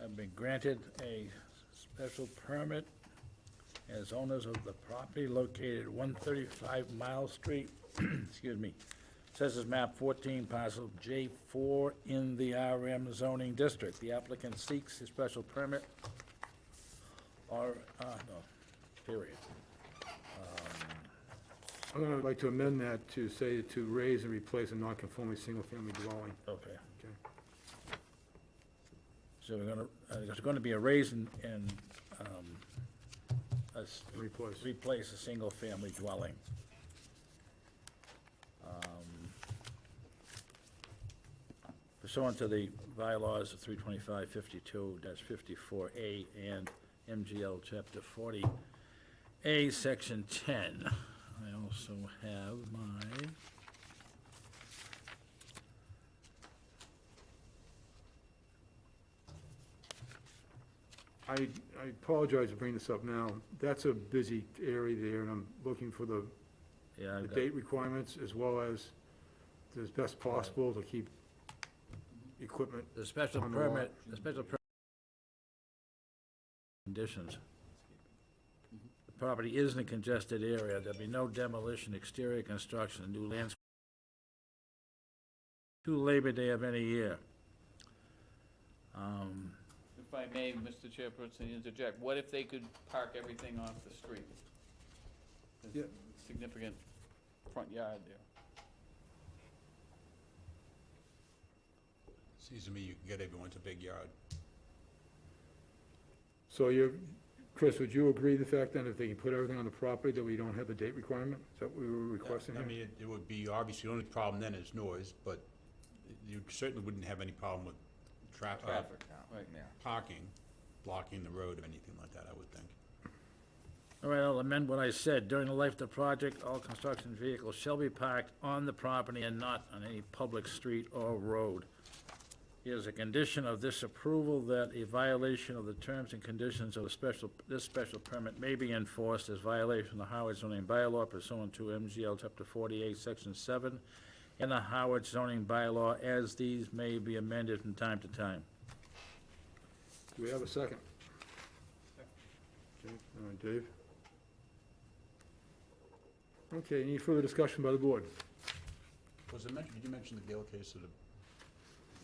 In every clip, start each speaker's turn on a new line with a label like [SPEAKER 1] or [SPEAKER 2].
[SPEAKER 1] have been granted a special permit as owners of the property located one thirty-five Mile Street, excuse me, Assessors map fourteen, parcel J four in the RM zoning district. The applicant seeks a special permit or, uh, no, period.
[SPEAKER 2] I'd like to amend that to say to raise and replace a non-conforming single-family dwelling.
[SPEAKER 1] Okay.
[SPEAKER 2] Okay.
[SPEAKER 1] So we're gonna, uh, there's gonna be a raise and, and, um, a s-
[SPEAKER 2] Replace.
[SPEAKER 1] Replace a single-family dwelling. Um, Pursuant to the bylaws of three twenty-five fifty-two fifty-four A and MGL chapter forty A, section ten. I also have my
[SPEAKER 2] I, I apologize for bringing this up now. That's a busy area there, and I'm looking for the,
[SPEAKER 1] yeah,
[SPEAKER 2] the
[SPEAKER 1] I've got.
[SPEAKER 2] date requirements as well as as best possible to keep equipment.
[SPEAKER 1] The special
[SPEAKER 2] On the lot.
[SPEAKER 1] permit, the special per- conditions. The property is in a congested area, there'll be no demolition, exterior construction, new lands. To Labor Day of any year. Um,
[SPEAKER 3] If I may, Mr. Chairperson, interject, what if they could park everything off the street? There's
[SPEAKER 2] Yeah.
[SPEAKER 3] Significant front yard there.
[SPEAKER 4] Seems to me you can get everyone's a big yard.
[SPEAKER 2] So you, Chris, would you agree the fact then if they can put everything on the property that we don't have a date requirement? Is that what we were requesting
[SPEAKER 4] I
[SPEAKER 2] here?
[SPEAKER 4] mean, it- it would be, obviously, the only problem then is noise, but you certainly wouldn't have any problem with tra- uh,
[SPEAKER 3] Traffic, right.
[SPEAKER 4] Parking, blocking the road or anything like that, I would think.
[SPEAKER 1] All right, I'll amend what I said, during the life of the project, all construction vehicles shall be parked on the property and not on any public street or road. It is a condition of this approval that a violation of the terms and conditions of the special, this special permit may be enforced as violation of the Howard zoning bylaw pursuant to MGL chapter forty-eight, section seven, and the Howard zoning bylaw as these may be amended from time to time.
[SPEAKER 2] Do we have a second? Okay, all right, Dave? Okay, any further discussion by the board?
[SPEAKER 4] Was it mentioned, did you mention the Gale case or the,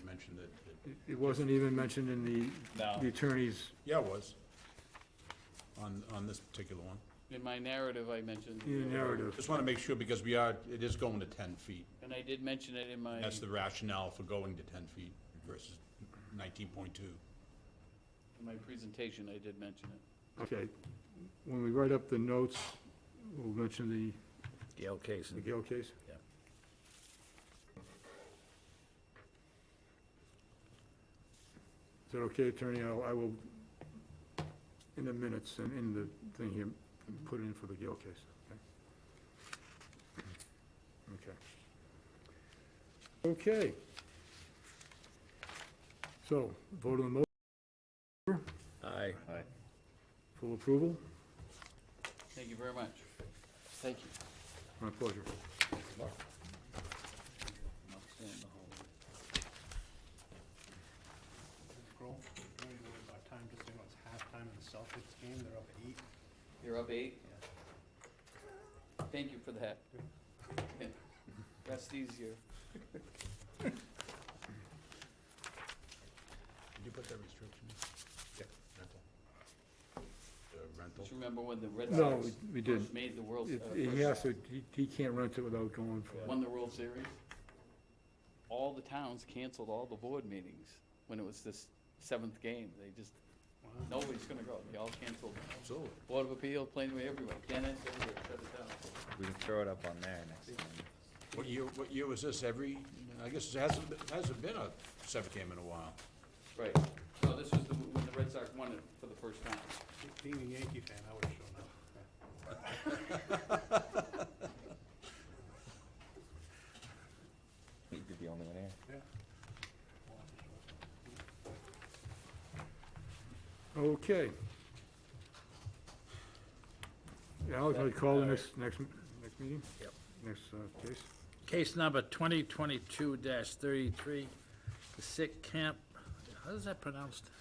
[SPEAKER 4] you mentioned that? that-
[SPEAKER 2] It- It wasn't even mentioned in the,
[SPEAKER 3] No.
[SPEAKER 2] the attorney's,
[SPEAKER 4] Yeah, it was. On, on this particular one.
[SPEAKER 3] In my narrative, I mentioned.
[SPEAKER 2] in the narrative.
[SPEAKER 4] Just want to make sure because we are, it is going to 10 feet.
[SPEAKER 3] And I did mention it in my,
[SPEAKER 4] That's the rationale for going to 10 feet versus 19.2.
[SPEAKER 3] in my presentation, I did mention it.
[SPEAKER 2] Okay, when we write up the notes, we'll mention the,
[SPEAKER 1] Gail case
[SPEAKER 2] the
[SPEAKER 1] and
[SPEAKER 2] Gale case. Is that okay, attorney? I'll, I will, in the minutes and in the thing here, put it in for the Gale case, okay? Okay. Okay. So, vote on the motion
[SPEAKER 1] Aye.
[SPEAKER 2] full approval?
[SPEAKER 3] Thank you very much. Thank you.
[SPEAKER 2] My pleasure.
[SPEAKER 3] I'll stay in the hallway.
[SPEAKER 5] April, I don't even know about time, just so you know, it's halftime in the Celtics game, they're up eight.
[SPEAKER 3] You're up eight? Thank you for that. That's easier.
[SPEAKER 4] Did you put that restriction in? Yeah. Rental. The rental.
[SPEAKER 3] Just remember when the Red
[SPEAKER 2] No,
[SPEAKER 3] Sox
[SPEAKER 2] we- we
[SPEAKER 3] first
[SPEAKER 2] did.
[SPEAKER 3] made the World,
[SPEAKER 2] If-
[SPEAKER 3] uh,
[SPEAKER 2] if
[SPEAKER 3] first
[SPEAKER 2] He has to, he- he can't rent it without going for it.
[SPEAKER 3] won the World Series, all the towns canceled all the board meetings when it was this seventh game. They just, nobody's gonna go. They all canceled.
[SPEAKER 4] Absolutely.
[SPEAKER 3] Board of Appeal, Plainway, everyone. Dennis, everywhere, shut it down.
[SPEAKER 6] We can throw it up on there next time.
[SPEAKER 4] What year, what year was this? Every, I guess it hasn't, been- hasn't been a seventh game in a while.
[SPEAKER 3] Right. So this was the, when the Red Sox won it for the first time.
[SPEAKER 5] Being a Yankee fan, I would've shown up.
[SPEAKER 6] We'd be the only one here.
[SPEAKER 5] Yeah.
[SPEAKER 2] Okay. Alex, I call the next, next, next meeting?
[SPEAKER 1] Yep.
[SPEAKER 2] Next uh, case?
[SPEAKER 1] Case number 2022-33, the Sick Camp, how is that pronounced?